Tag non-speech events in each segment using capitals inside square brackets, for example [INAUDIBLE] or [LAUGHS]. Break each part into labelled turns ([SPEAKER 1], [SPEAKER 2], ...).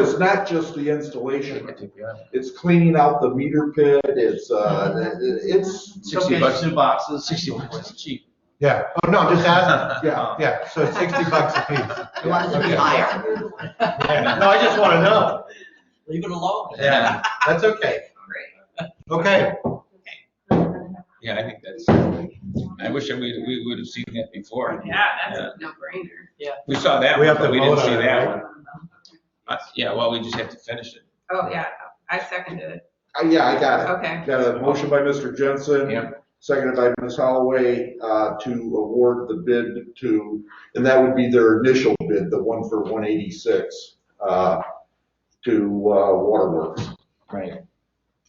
[SPEAKER 1] It's not just the installation, it's cleaning out the meter pit, it's, uh, it's,
[SPEAKER 2] Sixty bucks. Two boxes. Sixty bucks, cheap.
[SPEAKER 3] Yeah, oh, no, just ask,
[SPEAKER 1] [LAUGHS] yeah.
[SPEAKER 3] yeah, so sixty bucks a piece.
[SPEAKER 4] It wants to be
[SPEAKER 3] Okay.
[SPEAKER 4] higher.
[SPEAKER 3] No, I just wanna know,
[SPEAKER 4] Leave it alone.
[SPEAKER 2] Yeah,
[SPEAKER 3] that's okay. Okay,
[SPEAKER 2] yeah, I think that's, I wish that we, we would have seen that before.
[SPEAKER 5] Yeah, that's a no-brainer.
[SPEAKER 2] We saw that
[SPEAKER 3] We
[SPEAKER 2] one,
[SPEAKER 3] have
[SPEAKER 2] but
[SPEAKER 3] to
[SPEAKER 2] we didn't
[SPEAKER 3] vote on
[SPEAKER 2] see
[SPEAKER 3] it,
[SPEAKER 2] that
[SPEAKER 3] right?
[SPEAKER 2] one. Uh, Yeah, well, we just have to finish it.
[SPEAKER 5] Oh, yeah, I seconded it.
[SPEAKER 1] Uh, yeah, I got it.
[SPEAKER 5] Okay.
[SPEAKER 1] Got a motion by Mr. Jensen.
[SPEAKER 2] Yeah.
[SPEAKER 1] Seconded by Ms. Holloway, uh, to award the bid to, and that would be their initial bid, the one for one eighty-six, uh, to, uh, Waterworks.
[SPEAKER 2] Right.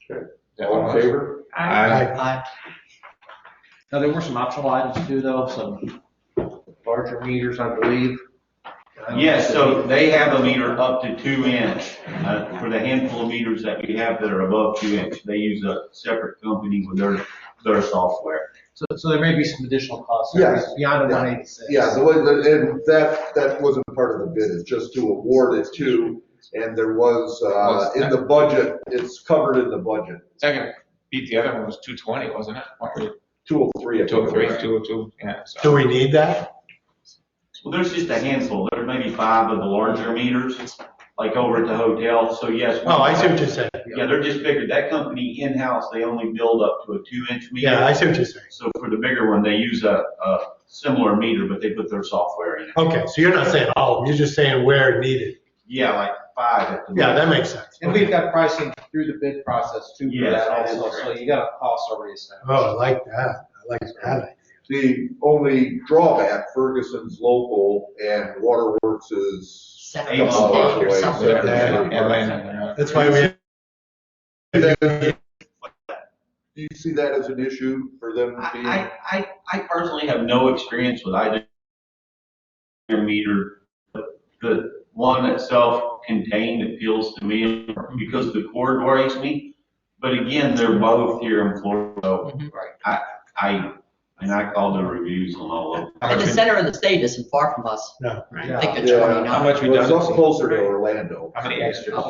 [SPEAKER 1] Okay. All in favor?
[SPEAKER 5] I-
[SPEAKER 2] Aye.
[SPEAKER 4] Aye.
[SPEAKER 2] Now, there were some optional items too, though, some larger meters, I believe.
[SPEAKER 6] Yes, so they have a meter up to two inch, uh, for the handful of meters that we have that are above two inch. They use a separate company with their, their software.
[SPEAKER 2] So, so there may be some additional costs.
[SPEAKER 1] Yes.
[SPEAKER 2] Beyond the
[SPEAKER 1] Yeah.
[SPEAKER 2] one eighty-six.
[SPEAKER 1] Yeah, the, one- the- and that, that wasn't part of the bid, it's just to award it to, and there was, uh, in the budget, it's covered in the budget,
[SPEAKER 7] Second, beat the other one was two twenty, wasn't it?
[SPEAKER 1] two oh three.
[SPEAKER 7] Two oh three, two oh two, yeah. so-
[SPEAKER 3] do we need that?
[SPEAKER 6] Well, there's just a handful. There may be five of the larger meters, like over at the hotel, so yes.
[SPEAKER 3] Oh, I see what you're saying,
[SPEAKER 6] Yeah, they're just bigger. That company in-house, they only build up to a two inch meter.
[SPEAKER 3] yeah, I see what you're saying.
[SPEAKER 6] So for the bigger one, they use a, a similar meter, but they put their software in it.
[SPEAKER 3] Okay, so you're not saying all of them, you're just saying where needed.
[SPEAKER 6] Yeah, like five at the.
[SPEAKER 3] Yeah, that makes sense.
[SPEAKER 2] And we've got pricing through the bid process too for
[SPEAKER 6] Yes,
[SPEAKER 2] that
[SPEAKER 6] that is
[SPEAKER 2] also, so you got a cost already established.
[SPEAKER 3] Oh, I like that, I like that.
[SPEAKER 1] The only drawback, Ferguson's local and Waterworks is
[SPEAKER 4] Seven
[SPEAKER 6] Eight
[SPEAKER 4] days
[SPEAKER 6] miles
[SPEAKER 4] or
[SPEAKER 1] away.
[SPEAKER 4] something.
[SPEAKER 1] Yeah.
[SPEAKER 7] Atlanta,
[SPEAKER 3] That's why we,
[SPEAKER 1] Do you see that as an issue for them being?
[SPEAKER 6] I, I, I personally have no experience with either meter. but The one that's self-contained appeals to me because the cord worries me. But again, they're both here in Florida. so
[SPEAKER 4] Mhm.
[SPEAKER 6] I, I, and I called the reviews on all of them.
[SPEAKER 4] And the center of the state isn't far from us.
[SPEAKER 3] No.
[SPEAKER 4] I think it's
[SPEAKER 1] Yeah.
[SPEAKER 7] How
[SPEAKER 4] 29.
[SPEAKER 7] much
[SPEAKER 1] Well, it's also
[SPEAKER 7] redundancy?
[SPEAKER 1] closer to Orlando.
[SPEAKER 7] How many extra,
[SPEAKER 1] Yeah,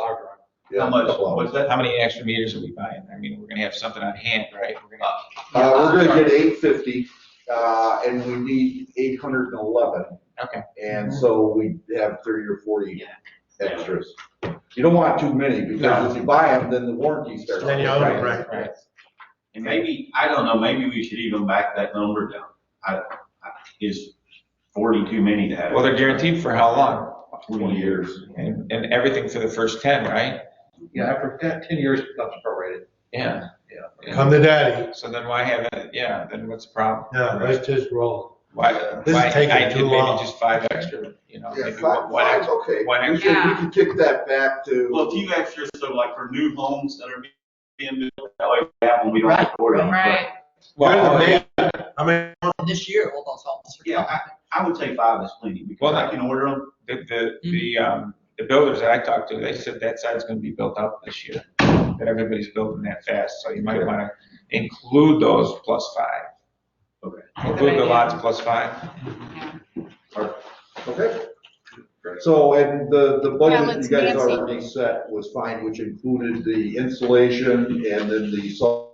[SPEAKER 6] How much,
[SPEAKER 1] couple hours.
[SPEAKER 6] what's that?
[SPEAKER 7] how many extra meters are we buying? I mean, we're gonna have something on hand, right? We're gonna-
[SPEAKER 1] Uh, we're gonna get eight fifty, uh, and we need eight hundred and eleven.
[SPEAKER 7] Okay.
[SPEAKER 1] And so we have thirty or forty
[SPEAKER 4] Yeah.
[SPEAKER 1] extras. You don't want too many,
[SPEAKER 7] No.
[SPEAKER 1] because if you buy them, then the warranty starts.
[SPEAKER 3] then you own it, right?
[SPEAKER 7] Right.
[SPEAKER 6] And maybe, I don't know, maybe we should even back that number down. I, I- is forty too many to have?
[SPEAKER 7] Well, they're guaranteed for how long?
[SPEAKER 6] Twenty years.
[SPEAKER 7] And, and everything for the first ten, right?
[SPEAKER 2] Yeah, after ten- ten years, it becomes prorated.
[SPEAKER 7] Yeah.
[SPEAKER 3] Come to daddy,
[SPEAKER 7] So then why have it, yeah, then what's the problem?
[SPEAKER 3] no, let's just roll.
[SPEAKER 7] Why,
[SPEAKER 3] This is
[SPEAKER 7] why, I
[SPEAKER 3] taking
[SPEAKER 7] did
[SPEAKER 3] too
[SPEAKER 7] maybe
[SPEAKER 3] long.
[SPEAKER 7] just five extra, you know,
[SPEAKER 1] Yeah,
[SPEAKER 7] maybe
[SPEAKER 1] five,
[SPEAKER 7] one one
[SPEAKER 1] five's
[SPEAKER 7] extra.
[SPEAKER 1] okay.
[SPEAKER 7] one
[SPEAKER 1] We
[SPEAKER 5] extra.
[SPEAKER 1] can, we can kick that back to.
[SPEAKER 6] Well, a few extras, so like for new homes that are being built, that way we have when we don't
[SPEAKER 4] Right,
[SPEAKER 6] afford them.
[SPEAKER 5] Right.
[SPEAKER 3] You're the
[SPEAKER 7] Well,
[SPEAKER 3] man. I mean,
[SPEAKER 4] This year, well, that's almost.
[SPEAKER 6] Yeah, I would say five is plenty, because
[SPEAKER 7] Well,
[SPEAKER 6] I can order them,
[SPEAKER 7] the, the, the, um, the builders that I talked to, they said that side's gonna be built up this year. That everybody's building that fast, so you might wanna include those plus five.
[SPEAKER 6] Okay.
[SPEAKER 7] Include the lots plus five.
[SPEAKER 1] Okay. So, and the, the budget
[SPEAKER 5] let's
[SPEAKER 1] you guys
[SPEAKER 5] Nancy.
[SPEAKER 1] already set was fine, which included the installation and then the salt.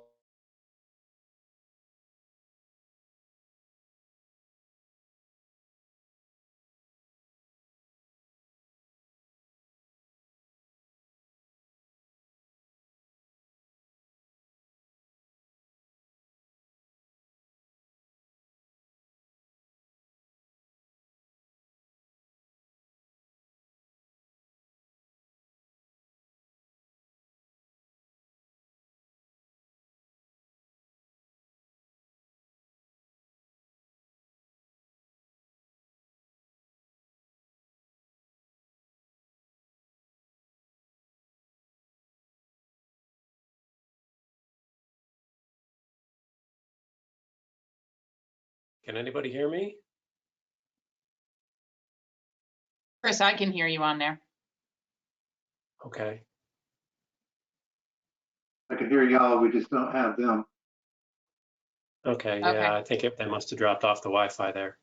[SPEAKER 8] Can anybody hear me?
[SPEAKER 5] Chris, I can hear you on there.
[SPEAKER 8] Okay.
[SPEAKER 9] I can hear y'all, we just don't have them.
[SPEAKER 8] Okay,
[SPEAKER 5] Okay.
[SPEAKER 8] yeah, I think it- they must have dropped off the Wi-Fi there.